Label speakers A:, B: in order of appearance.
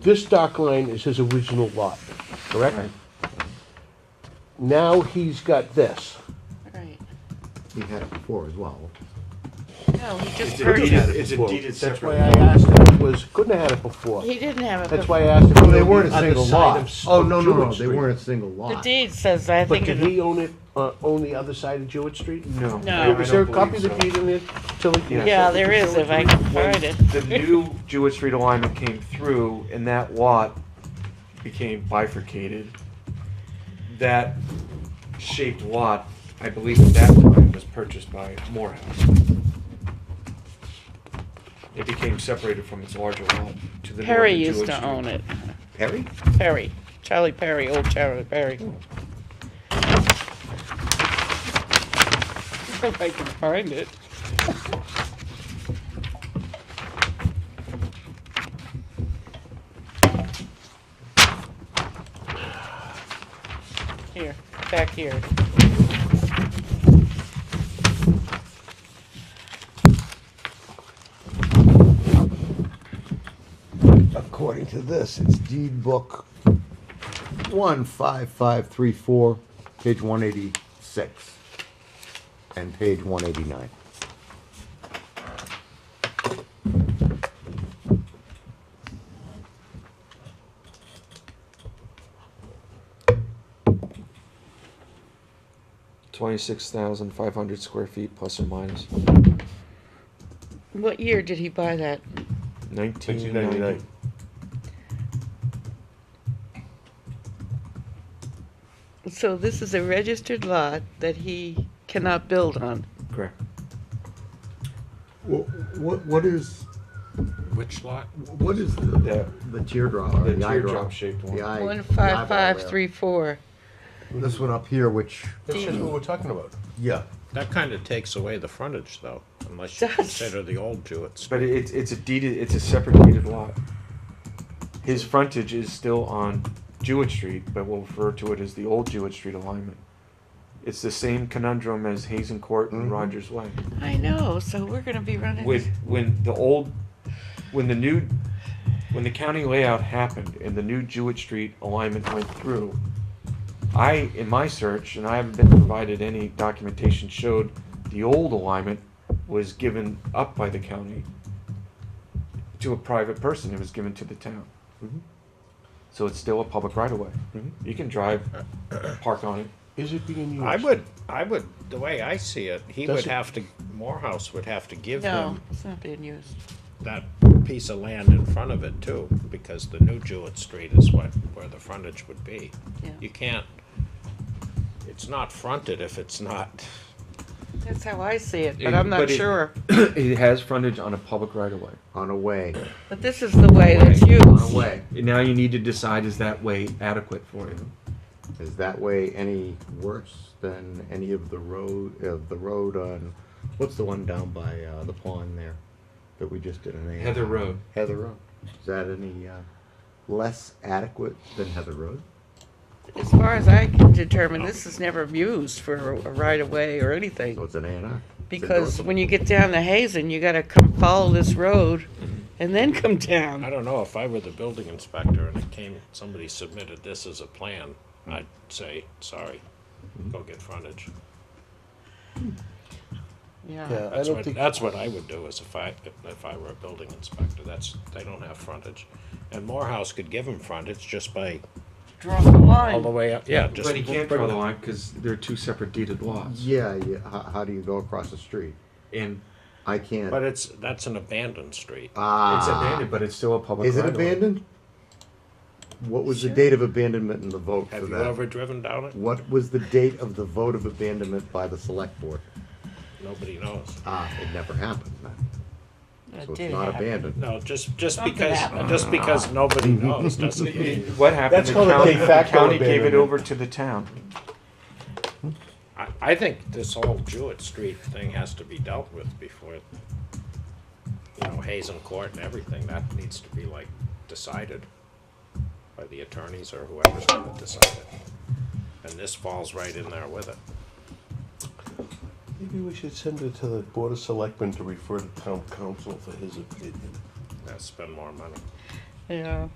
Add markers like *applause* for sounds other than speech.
A: This dock line is his original lot, correct?
B: Right.
A: Now he's got this.
C: Right.
B: He had it before as well.
C: No, he just
D: It's
C: purchased.
D: a- it's a
A: Well,
D: deeded
A: That's why
D: separate.
A: I asked him, was, couldn't have had it before.
C: He didn't have it.
A: That's
C: before.
A: why I asked him.
B: Well, they weren't a
A: on the
B: single
A: side
B: lot.
A: of-
B: Oh,
A: of
B: no, no, no,
A: Jewett
B: they
A: Street.
B: weren't a single
C: The
B: lot.
C: deed says, I
A: But
C: think,
A: did
C: it-
A: he own it, uh, own the other side of Jewett Street?
D: No. I
C: No.
D: don't
A: Is there a copy of
D: believe
A: the
D: so.
A: deed in there, Tilly?
D: Yeah.
C: yeah, there is, if I can
D: When
C: find it.
D: The new Jewett Street alignment came through and that lot became bifurcated. That shaped lot, I believe at that time, was purchased by Morehouse. It became separated from its larger lot to the north of
C: Perry used
D: Jewett
C: to
D: Street.
C: own it.
B: Perry?
C: Perry, Charlie Perry, old Charlie Perry. If I can find it. Here, back here.
B: According to this, it's deed book one five five three four, page one eighty-six, and page one eighty-nine.
D: Twenty-six thousand five hundred square feet plus or minus,
C: What year did he buy that?
D: nineteen
A: 1999.
D: ninety.
C: So this is a registered lot that he cannot build on.
D: Correct.
B: What, what is,
E: Which lot?
B: what is
D: The-
B: the, the teardrop, or
D: the
B: the eye drop?
D: teardrop-shaped one.
B: The eye-
C: One
B: the
C: five
B: eyeball
C: five
B: there.
C: three four.
B: This one up here, which,
A: That's just what we're talking about.
B: yeah,
E: That kind of takes away the frontage, though, unless you
C: Does.
E: consider the old Jewett.
D: But it- it's it's a deeded it's a separated lot. His frontage is still on Jewett Street, but we'll refer to it as the old Jewett Street alignment. It's the same conundrum as Hazen Court and Rogers Way.
C: I know, so we're gonna be running.
D: With when the old when the new when the county layout happened and the new Jewett Street alignment went through, I in my search and I haven't been provided any documentation showed the old alignment was given up by the county to a private person. It was given to the town. Mm-hmm. So it's still a public right of way. You can drive, park on it.
A: Is it being used?
E: I would, I would, the way I see it, he would
A: Doesn't-
E: have to, Morehouse would have to give
C: No,
E: him
C: it's not being used.
E: that piece of land in front of it too, because the new Jewett Street is what, where the frontage would be.
C: Yeah.
E: You can't, it's not fronted if it's not,
C: That's how I see it, but
D: It-
C: I'm not
D: but it-
C: sure.
D: it has frontage on a public right of way.
B: on a way,
C: But this is the way that's
B: on a
C: used.
B: way.
D: Now you need to decide is that way adequate for you?
B: Is that way any worse than any of the road, of the road on, what's the one down by, uh, the pond there? That we just did an A.
D: Heather Road.
B: Heather Road. Is that any, uh, less adequate than Heather Road?
C: As far as I can determine, this is never used for a right of way or
B: So
C: anything.
B: it's an A and R.
C: Because when you get down to Hazen, you gotta come follow this road and then come
E: I
C: down.
E: don't know, if I were the building inspector and it came, somebody submitted this as a plan, I'd say, sorry, go get frontage.
C: Yeah.
A: I
E: That's
A: don't
E: what,
A: think,
E: that's what I would do is if I, if I were a building inspector, that's, they don't have frontage. And Morehouse could give them frontage just by,
C: Draw the
E: all the
C: line.
E: way up, yeah, just.
D: But he can't draw the line because they're two separate deeded lots.
B: Yeah, yeah, how, how do you go across the street?
D: And
B: I can't.
E: But it's, that's an abandoned street.
B: ah.
D: it's abandoned, but it's still a public.
B: Is it
D: right of way.
B: abandoned? What was the date of abandonment in the vote
E: Have
B: for
E: you
B: that?
E: ever driven down it?
B: What was the date of the vote of abandonment by the select board?
E: Nobody knows.
B: Ah, it never happened. then.
C: It
B: So
C: did
B: it's not
C: happen.
B: abandoned.
E: No, just, just because, just because
B: *laughs*
E: nobody knows doesn't mean,
D: It- What happened?
A: That's
D: the
A: called a
D: county,
A: de
D: the
A: facto
D: county gave it
A: abandonment.
D: over to the town.
E: I, I think this whole Jewett Street thing has to be dealt with before, you know, Hazen Court and everything, that needs to be like decided by the attorneys or whoever's gonna decide it. And this falls right in there with it.
A: maybe we should send it to the Board of Selectmen to refer to town council for his opinion.
E: Now spend more money.
C: Yeah.